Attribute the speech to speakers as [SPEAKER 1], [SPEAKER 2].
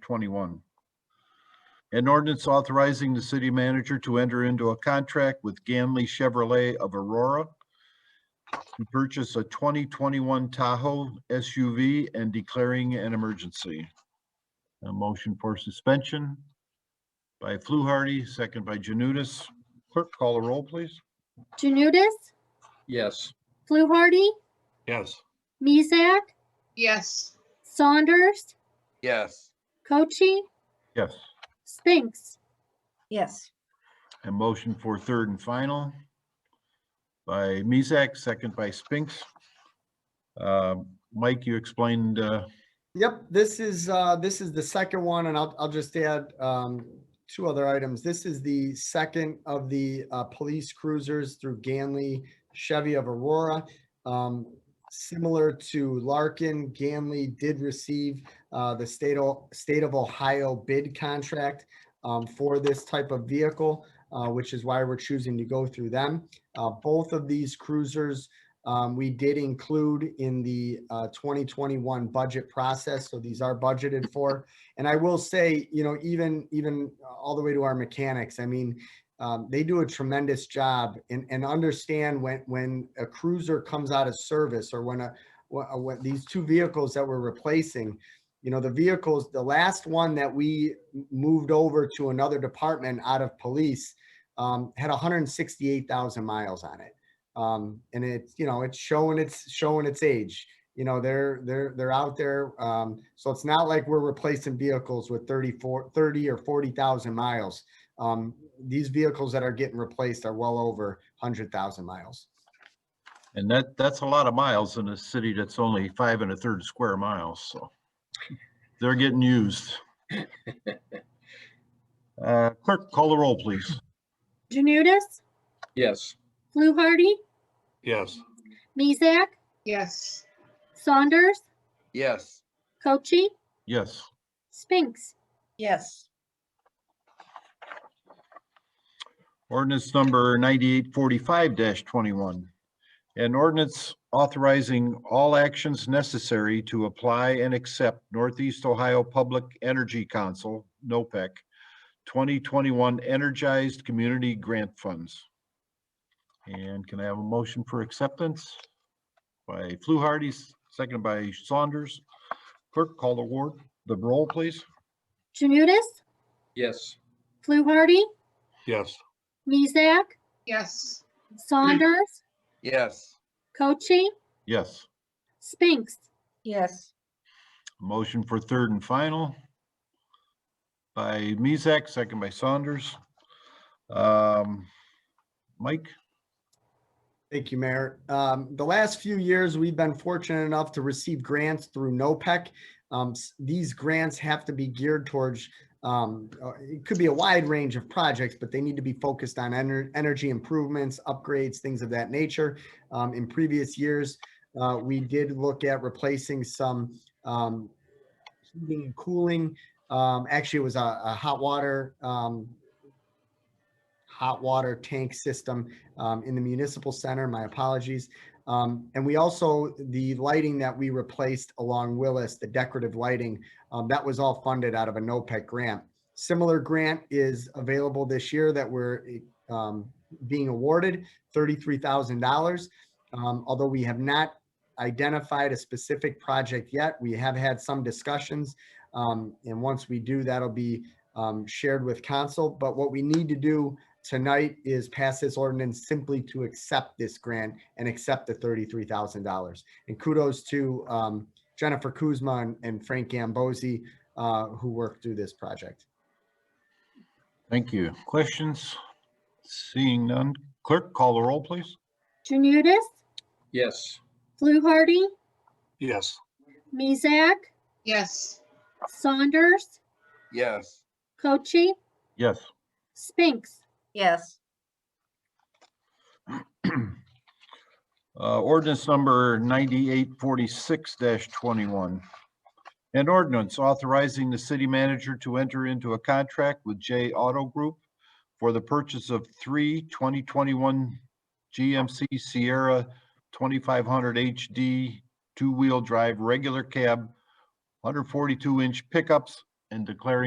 [SPEAKER 1] twenty-one. An ordinance authorizing the city manager to enter into a contract with Ganley Chevrolet of Aurora to purchase a twenty twenty-one Tahoe SUV and declaring an emergency. A motion for suspension by Fluharty, second by Janutus. Clerk, call a roll, please.
[SPEAKER 2] Janutis,
[SPEAKER 3] Yes.
[SPEAKER 2] Fluharty,
[SPEAKER 1] Yes.
[SPEAKER 2] Mizak,
[SPEAKER 4] yes,
[SPEAKER 2] Saunders,
[SPEAKER 3] Yes.
[SPEAKER 2] Cochi,
[SPEAKER 1] Yes.
[SPEAKER 2] Spinks.
[SPEAKER 5] yes,
[SPEAKER 1] A motion for third and final by Mezak, second by Spinks. Uh, Mike, you explained, uh,
[SPEAKER 6] Yep, this is, uh, this is the second one, and I'll, I'll just add, um, two other items. This is the second of the, uh, police cruisers through Ganley Chevy of Aurora. Um, similar to Larkin, Ganley did receive, uh, the state, o- state of Ohio bid contract, um, for this type of vehicle, uh, which is why we're choosing to go through them. Uh, both of these cruisers um, we did include in the uh, 2021 budget process, so these are budgeted for. And I will say, you know, even even uh, all the way to our mechanics, I mean, um, they do a tremendous job and and understand when when a cruiser comes out of service or when a wh- uh, when these two vehicles that we're replacing, you know, the vehicles, the last one that we m- moved over to another department out of police um, had 168,000 miles on it um, and it's you know it's showing its showing its age. You know they're they're they're out there, um, so it's not like we're replacing vehicles with 34, 30 or forty thousand miles. Um, these vehicles that are getting replaced are well over hundred thousand miles.
[SPEAKER 1] and that, that's a lot of miles in a city that's only five and a third square miles, so they're getting used. Uh, Clerk, call the roll, please.
[SPEAKER 2] Janutis,
[SPEAKER 3] Yes.
[SPEAKER 2] Fluharty,
[SPEAKER 1] Yes.
[SPEAKER 2] Mizak,
[SPEAKER 4] yes,
[SPEAKER 2] Saunders,
[SPEAKER 3] Yes.
[SPEAKER 2] Cochi,
[SPEAKER 1] Yes.
[SPEAKER 2] Spinks.
[SPEAKER 5] yes,
[SPEAKER 1] Ordinance number ninety-eight forty-five twenty-one. An ordinance authorizing all actions necessary to apply and accept Northeast Ohio Public Energy Council, NOPEC, E twenty twenty-one Energized Community Grant Funds. And can I have a motion for acceptance by Fluharty, second by Saunders? Clerk, call the ward, the roll, please.
[SPEAKER 2] Janutis,
[SPEAKER 3] Yes.
[SPEAKER 2] Fluharty,
[SPEAKER 1] Yes.
[SPEAKER 2] Mizak,
[SPEAKER 4] yes,
[SPEAKER 2] Saunders,
[SPEAKER 3] Yes.
[SPEAKER 2] Cochi,
[SPEAKER 1] Yes.
[SPEAKER 2] Spinks.
[SPEAKER 5] yes,
[SPEAKER 1] Motion for third and final by Mezek, second by Saunders. Um, Mike?
[SPEAKER 6] Thank you, Mayor. Um, the last few years, we've been fortunate enough to receive grants through NOPEC. Um, s- these grants have to be geared towards, um, uh, it could be a wide range of projects, but they need to be focused on ener- energy improvements, upgrades, things of that nature. Um, in previous years, uh, we did look at replacing some, um, heating and cooling. Um, actually, it was a, a hot water, um, hot water tank system um, in the municipal center. My apologies. Um, and we also, the lighting that we replaced along Willis, the decorative lighting, um, that was all funded out of a NOPEC grant. Similar grant is available this year that we're um, being awarded, $33,000. Um, although we have not identified a specific project yet, we have had some discussions. Um, and once we do, that'll be um, shared with council. But what we need to do tonight is pass this ordinance simply to accept this grant and accept the thirty-three thousand dollars. And kudos to um, Jennifer Kuzma and- and Frank Gambosi, uh, who worked through this project.
[SPEAKER 1] Thank you. Questions? Seeing none. Clerk, call the roll, please.
[SPEAKER 2] Janutis,
[SPEAKER 3] Yes.
[SPEAKER 2] Fluharty,
[SPEAKER 1] Yes.
[SPEAKER 2] Mizak,
[SPEAKER 4] yes,
[SPEAKER 2] Saunders,
[SPEAKER 3] Yes.
[SPEAKER 2] Cochi,
[SPEAKER 1] Yes.
[SPEAKER 2] Spinks.
[SPEAKER 5] yes,
[SPEAKER 1] Uh, ordinance number ninety-eight forty-six twenty-one. An ordinance authorizing the city manager to enter into a contract with J Auto Group for the purchase of three 2021 GMC Sierra twenty-five hundred HD two-wheel drive regular cab, hundred forty-two inch pickups and declaring